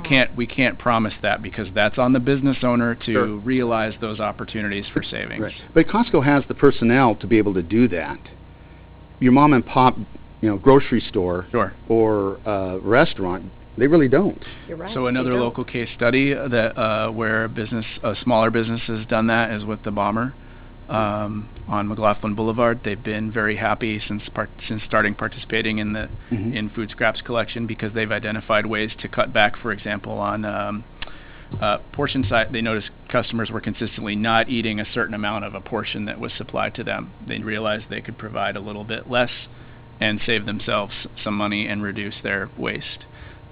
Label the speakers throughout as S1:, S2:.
S1: can't, we can't promise that because that's on the business owner
S2: Sure.
S1: to realize those opportunities for savings.
S2: Right. But Costco has the personnel to be able to do that. Your mom and pop, you know, grocery store
S1: Sure.
S2: or uh, restaurant, they really don't.
S3: You're right.
S1: So
S3: they
S1: another
S3: don't.
S1: local case study that, uh, where a business, a smaller business has done that is with the Bomber, um, on McLaughlin Boulevard. They've been very happy since part, since starting participating in the,
S2: Mhm.
S1: in food scraps collection because they've identified ways to cut back, for example, on, um, uh, portion size. They noticed customers were consistently not eating a certain amount of a portion that was supplied to them. They realized they could provide a little bit less and save themselves some money and reduce their waste.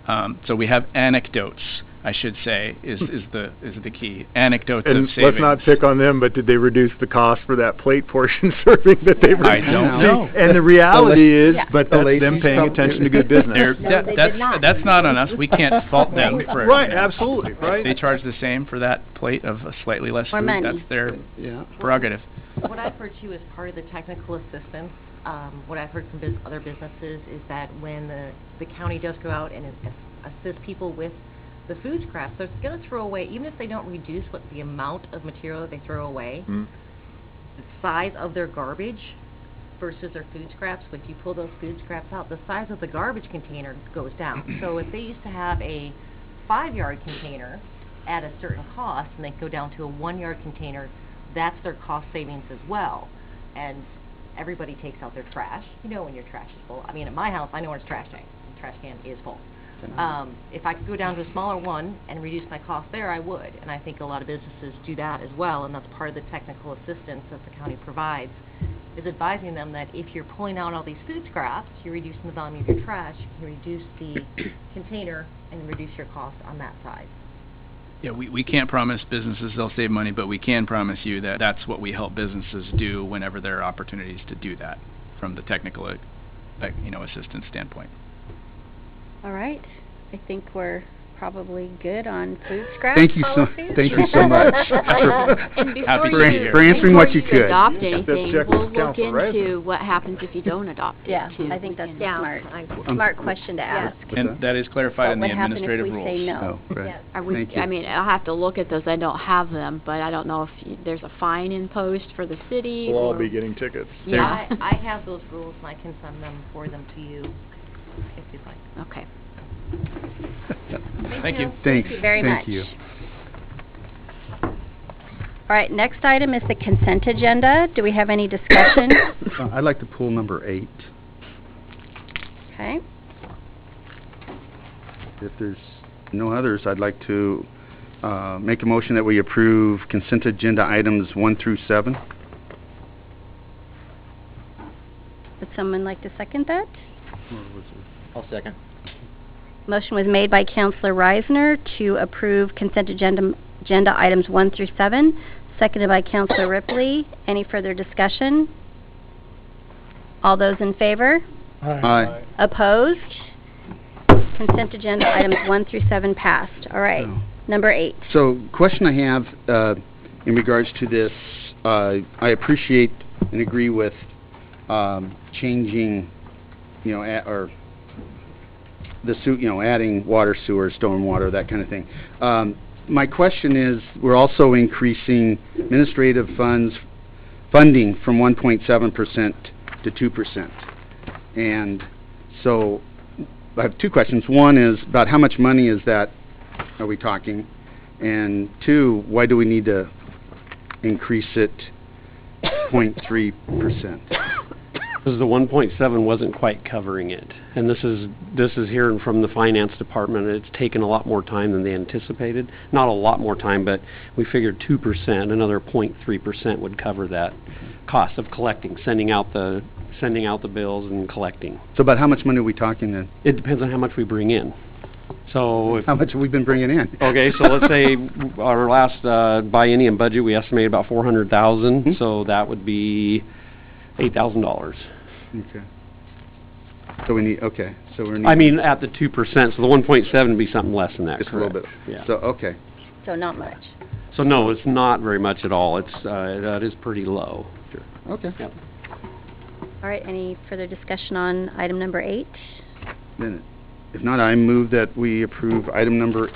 S1: Um, so we have anecdotes, I should say, is, is the is the key anecdotes
S4: And
S1: of savings.
S4: let's not pick on them, but did they reduce the cost for that plate portion serving that they were?
S1: I don't know.
S4: And the reality is,
S3: Yeah.
S4: but
S2: The
S4: that's
S2: ladies
S4: them paying
S2: probably-
S4: attention to good business.
S1: They're-
S3: No,
S1: that-
S3: they did
S1: that's
S3: not.
S1: that's not on us. We can't fault them for
S4: Right, absolutely,
S1: If
S4: right?
S1: They charge the same for that plate of a slightly less
S3: More
S1: food.
S3: money.
S1: That's their
S2: Yeah.
S1: prerogative.
S5: What I've heard too is part of the technical assistance, um, what I've heard from bus- other businesses is that when the, the county does go out and ass- assist people with the food scraps, they're gonna throw away, even if they don't reduce what the amount of material that they throw away,
S1: Mm-hmm.
S4: Mm.
S5: the size of their garbage versus their food scraps, if you pull those food scraps out, the size of the garbage container goes down. So if they used to have a five-yard container at a certain cost, and they go down to a one-yard container, that's their cost savings as well. And everybody takes out their trash, you know when your trash is full. I mean, at my house, I know when it's trash day, the trash can is full. Um, if I could go down to a smaller one and reduce my cost there, I would. And I think a lot of businesses do that as well, and that's part of the technical assistance that the county provides, is advising them that if you're pulling out all these food scraps, you're reducing the volume of your trash, you reduce the container and reduce your cost on that side.
S1: Yeah, we, we can't promise businesses they'll save money, but we can promise you that that's what we help businesses do whenever there are opportunities to do that from the technical, uh, like, you know, assistance standpoint.
S3: All right. I think we're probably good on food scraps.
S2: Thank you so,
S3: policies.
S2: thank you so much.
S6: And before
S1: Happy
S6: you-
S1: to be here.
S2: For answering what you
S6: Before
S2: could.
S6: you adopt
S2: Yeah.
S4: That's
S6: anything,
S4: Jack
S6: we'll look
S4: with counsel, right?
S6: into what happens if you don't adopt
S3: Yeah,
S6: it, too.
S3: I think
S6: We
S3: that's
S6: can-
S3: a smart, smart question to ask.
S1: And that is clarified in the administrative
S3: What would happen if we say
S1: rules.
S3: no?
S2: Oh, right.
S6: Are we,
S2: Thank you.
S6: I mean, I'll have to look at those, I don't have them, but I don't know if y- there's a fine imposed for the city,
S4: We'll all
S6: or-
S4: be getting tickets.
S6: Yeah.
S5: I, I have those rules, and I can send them, forward them to you if you'd like.
S6: Okay.
S1: Thank you.
S2: Thanks,
S3: Thank you very much.
S2: thank you.
S3: All right, next item is the consent agenda. Do we have any discussion?
S2: Uh, I'd like to pull number eight,
S3: Okay.
S2: if there's no others, I'd like to, uh, make a motion that we approve consent agenda items one through seven.
S3: Would someone like to second that?
S7: I'll second.
S3: Motion was made by Counselor Reisner to approve consent agenda, agenda items one through seven, seconded by Counselor Ripley. Any further discussion? All those in favor?
S2: Aye.
S3: Opposed? Consent agenda items one through seven passed. All right,
S2: No.
S3: number eight.
S2: So, question I have uh, in regards to this, uh, I appreciate and agree with um, changing, you know, a- or the su- you know, adding water, sewer, stormwater, that kind of thing. Um, my question is, we're also increasing administrative funds funding from 1.7 percent to 2 percent, and so I have two questions. One is about how much money is that? Are we talking? And two, why do we need to increase it 0.3%?
S8: Because the 1.7 wasn't quite covering it. And this is, this is hearing from the finance department, it's taken a lot more time than they anticipated. Not a lot more time, but we figured 2%, another 0.3% would cover that cost of collecting, sending out the, sending out the bills and collecting.
S2: So about how much money are we talking then?
S8: It depends on how much we bring in. So if
S2: How much have we been bringing in?
S8: Okay, so let's say our last uh, biennium budget, we estimated about four hundred
S2: Hmm.
S8: thousand, so that would be eight thousand dollars.
S2: Okay. So we need, okay, so we're needing...
S8: I mean, at the two percent, so the one point seven would be something less than that,
S2: Just a little bit.
S8: correct? Yeah.
S2: So, okay.
S3: So not much.
S8: So no, it's not very much at all. It's, uh, that is pretty low.
S2: Okay.
S8: Yep.
S3: All right, any further discussion on item number eight?
S2: Then, if not, I move that we approve item number